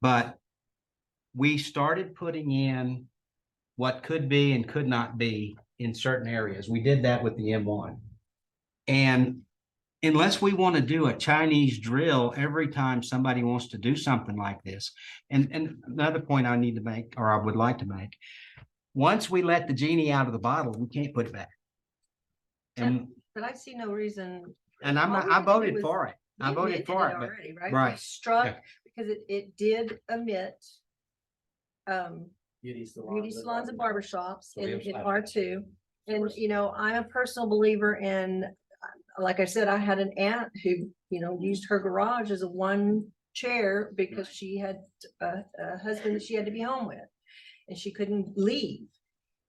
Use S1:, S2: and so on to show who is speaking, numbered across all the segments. S1: But we started putting in what could be and could not be in certain areas. We did that with the M one. And unless we want to do a Chinese drill every time somebody wants to do something like this, and, and another point I need to make, or I would like to make, once we let the genie out of the bottle, we can't put it back. And,
S2: But I see no reason.
S1: and I'm,
S2: All we
S1: not- I
S2: had to do
S1: voted
S2: was-
S1: for it. I
S2: we
S1: voted
S2: admitted
S1: for it, but-
S2: already, Right? We
S1: right.
S2: Struck, because it, it did omit um,
S3: Beauty salons.
S2: beauty salons and barber shops
S3: So we
S2: in,
S3: have
S2: in
S3: five.
S2: R two. And,
S3: First.
S2: you know, I'm a personal believer in, uh, like I said, I had an aunt who, you know, used her garage as a one chair because she had a, a husband that she had to be home with. And she couldn't leave.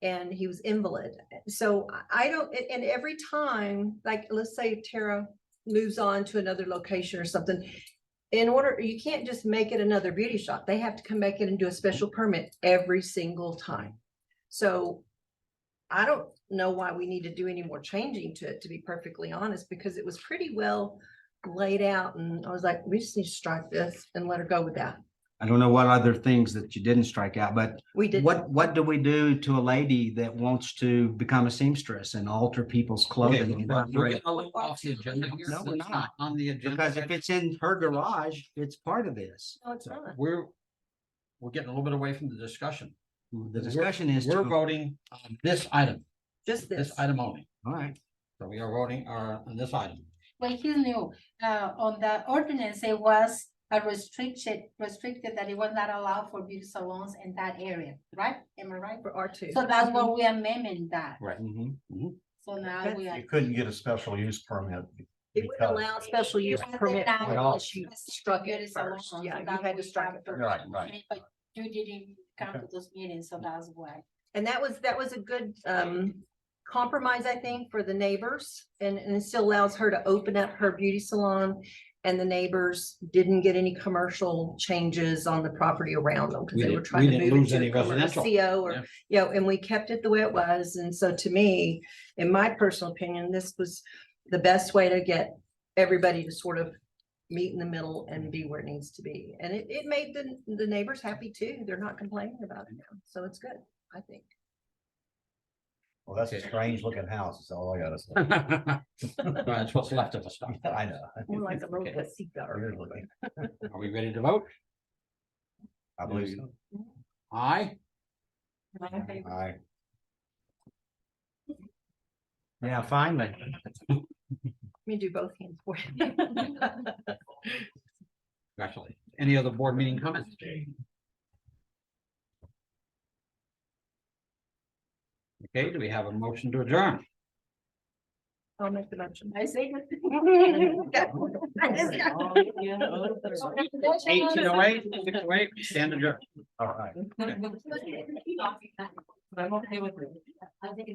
S2: And he was invalid. So I- I don't, a- and every time, like, let's say Tara moves on to another location or something. In order, you can't just make it another beauty shop. They have to come back in and do a special permit every single time. So I don't know why we need to do any more changing to it, to be perfectly honest, because it was pretty well laid out and I was like, we just need to strike this and let her go with that.
S1: I don't know what other things that you didn't strike out, but
S2: We did.
S1: what, what do we do to a lady that wants to become a seamstress and alter people's
S4: Okay,
S1: clothing?
S4: we're
S1: and
S4: we're
S1: upgrade?
S4: getting a little off the agenda here.
S1: No, we're
S4: That's
S1: not.
S4: On the agenda.
S1: Because if it's in her garage, it's part of this.
S2: No, it's not.
S4: We're, we're getting a little bit away from the discussion.
S1: The
S4: We're-
S1: discussion is
S4: We're
S1: to, all
S4: voting on this item,
S2: Just
S4: this
S2: this.
S4: item only.
S1: right,
S4: So we are voting uh, on this item.
S5: Well, he's new, uh, on the ordinance, it was a restriction, restricted that it was not allowed for beauty salons in that area, right? Am I right?
S2: For R two.
S5: So that's what we amending that,
S4: Right.
S1: mhm.
S5: so now we are.
S6: You couldn't get a special use permit.
S2: It would
S6: because-
S2: allow special use
S5: Because
S2: permit.
S5: now
S2: for
S5: it
S2: it
S5: was
S2: unless you
S5: restricted
S2: Struck
S5: beauty
S2: it first.
S5: salons, so
S2: Yeah,
S5: that
S2: you had
S5: we
S2: to strike
S5: have
S2: it
S5: to-
S2: first.
S4: Right, right.
S5: But you didn't come to those meetings, so that's why.
S2: And that was, that was a good um compromise, I think, for the neighbors. And and it still allows her to open up her beauty salon. And the neighbors didn't get any commercial changes on the property around them
S4: We
S2: because they were
S4: didn't-
S2: trying
S4: we
S2: to
S4: didn't
S2: move
S4: lose
S2: it to
S4: any
S2: a commercial
S4: residential.
S2: CO
S4: Yeah.
S2: E or, you know, and we kept it the way it was. And so to me, in my personal opinion, this was the best way to get everybody to sort of meet in the middle and be where it needs to be. And it, it made the, the neighbors happy too. They're not complaining about it now. So it's good, I think.
S6: Well, that's a
S4: Okay.
S6: strange looking house, is all I gotta say.
S4: That's what's left of us.
S6: I know.
S2: More like a little
S4: Okay.
S2: casita or
S6: Weird
S2: something.
S6: looking.
S4: Are we ready to vote?
S6: I believe so.
S4: Aye.
S5: Okay.
S6: Aye.
S1: Yeah, finally.
S2: Let me do both hands for you.
S4: Congratulations. Any other board meeting comments? Okay, do we have a motion to adjourn?
S2: I'll make the motion.
S5: I say.
S4: Eight to eight, six to eight, stand adjourned.
S6: All right.
S5: I'm okay with it. I think.